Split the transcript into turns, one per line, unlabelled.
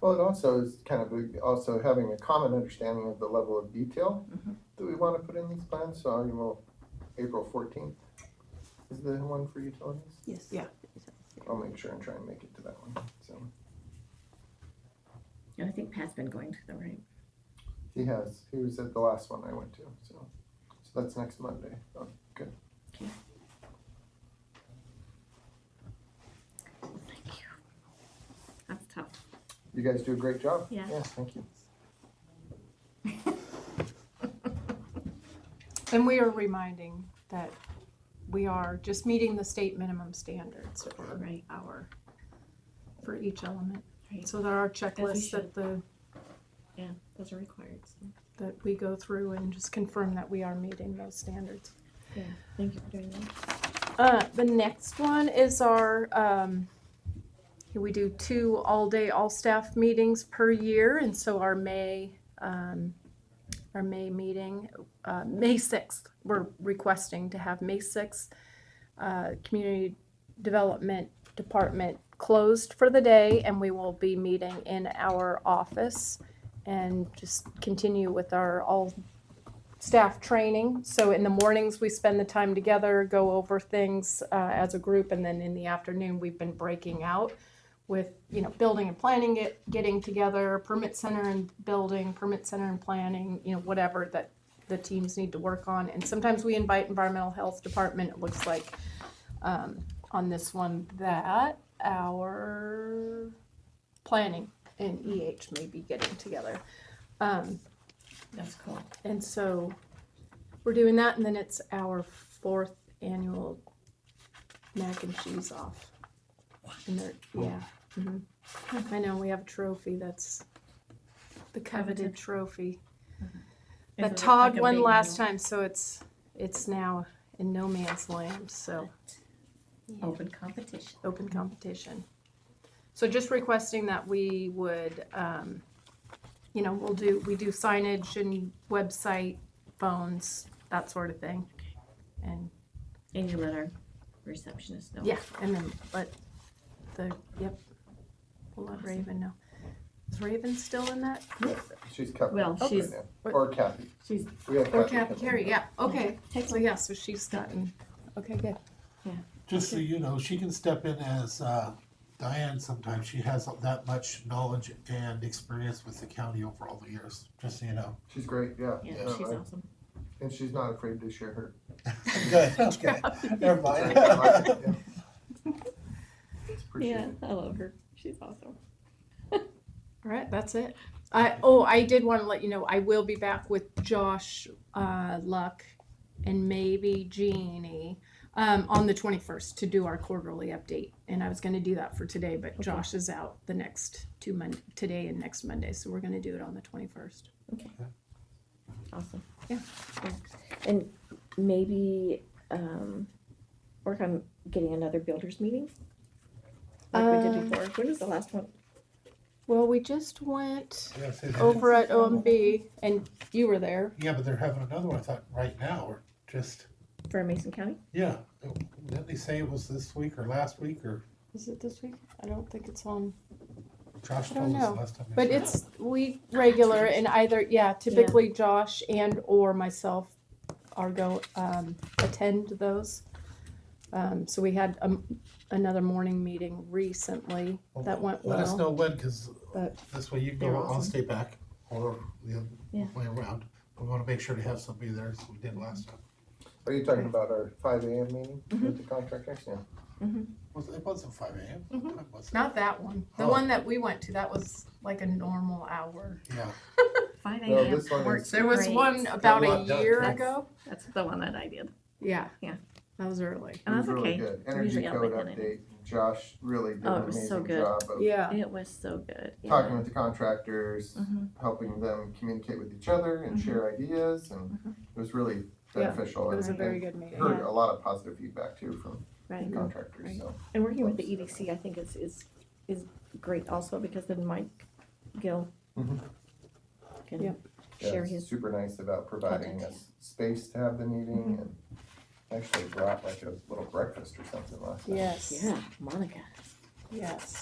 Well, it also is kind of a- also having a common understanding of the level of detail
Mhm.
that we want to put in these plans, so I will, April fourteenth is the one for utilities.
Yes.
Yeah.
I'll make sure and try and make it to that one, so.
And I think Pat's been going to the right.
He has, he was at the last one I went to, so, so that's next Monday. Oh, Good.
Thank you. That's tough.
You guys do a great job.
Yeah.
Yeah, thank you.
And we are reminding that we are just meeting the state minimum standards for
Right.
our, for each element.
Right.
So there are
As we
checklists
should.
that the,
Yeah, those are required. So.
that we go through and just confirm that we are meeting those standards.
Thank you for doing that.
Uh, the next one is our, um, we do two all-day, all-staff meetings per year, and so our May, um, our May meeting, uh, May sixth, we're requesting to have May sixth, uh, Community Development Department closed for the day, and we will be meeting in our office and just continue with our all staff training. So in the mornings, we spend the time together, go over things uh, as a group, and then in the afternoon, we've been breaking out with, you know, building and planning it, getting together, permit center and building, permit center and planning, you know, whatever that the teams need to work on. And sometimes we invite environmental health department, it looks like, um, on this one, that our planning and EH may be getting together. Um,
That's cool.
and so we're doing that, and then it's our fourth annual mac and cheese off. And they're, yeah. mhm. I know, we have a trophy that's the coveted
Coveted.
trophy.
Is
That
it
Todd
like a
won
big
last
meal?
time, so it's, it's now in no man's land, so Oh,
Open competition.
open competition. So just requesting that we would, um, you know, we'll do, we do signage and website, phones, that sort of thing. And,
And you let our receptionist know.
yeah, and then let the, yep, we'll let
Awesome.
Raven know. Is Raven still in that?
She's Kathy.
Well,
right
she's-
now. Or Kathy.
She's
We have
Or
Kathy.
Kathy
come in.
Carey, yeah, okay.
Text
So yeah, so she's gotten, okay, good.
Just so you know, she can step in as uh, Diane sometimes. She has that much knowledge and experience with the county over all the years, just so you know.
She's great, yeah.
Yeah,
No,
she's
I-
awesome.
And she's not afraid to share her.
Good, okay, never
I
mind.
like it, yeah. It's
Yeah,
appreciated.
I love her. She's awesome.
All right, that's it. I, oh, I did want to let you know, I will be back with Josh, uh, Luck, and maybe Jeannie, um, on the twenty-first to do our quarterly update. And I was gonna do that for today, but Josh is out the next two Mon, today and next Monday, so we're gonna do it on the twenty-first.
Awesome.
Yeah.
Yeah. And maybe um, work on getting another builders meeting like we
Uh,
did before. When was the last one?
Well, we just went
Yeah, say that.
over at OMB, and you were there.
Yeah, but they're having another one, I thought, right now, or just,
For Mason County?
yeah. Didn't they say it was this week or last week, or
Is it this week? I don't think it's on.
Josh
I don't
told us
know,
last time? they
But
said-
it's, we regular and either, yeah, typically Josh and or myself are go, um, attend those. Um, so we had, um, another morning meeting recently that went
Oh, Let us
well.
know when, because
but-
this way you can
They're
go, I'll
awesome.
stay back, or the
Yeah.
other way around. We want to make sure to have somebody there, as we did last time.
Are you talking about our five AM meeting
Mm-hmm.
with the contractors? Yeah.
Was, it wasn't five ¿eh? AM?
Mhm.
What time was it?
Not that one. The
Oh.
one that we went to, that was like a normal hour.
Yeah,
Five
No, Oh, this one is-
There was
great.
one about
lot
a
done.
year
That's-
ago.
That's the one that I did.
Yeah.
Yeah.
That was early.
And
It
that's
was really
okay.
good.
I'm
Energy
usually up by
code
then anyway.
update. Josh really did
Oh,
an
it was so
amazing
good.
job of
Yeah.
It was so good. Yeah.
talking with the contractors,
Mhm.
helping them communicate with each other and
Mhm.
share ideas and
Mm-hmm.
it was really
Yeah,
beneficial.
It was a
and-
very
and
good meeting.
Heard a lot of positive feedback too from
Right.
the contractors,
Right.
so.
And working with the EDC, I think is, is, is great also because then Mike Gill
Mhm.
can
Yep.
yeah,
share
it's
his,
Super nice about providing
Content,
us space to have the meeting
Mm-hmm.
and actually brought like a little breakfast or something last night.
Yes,
yeah, Monica.
yes.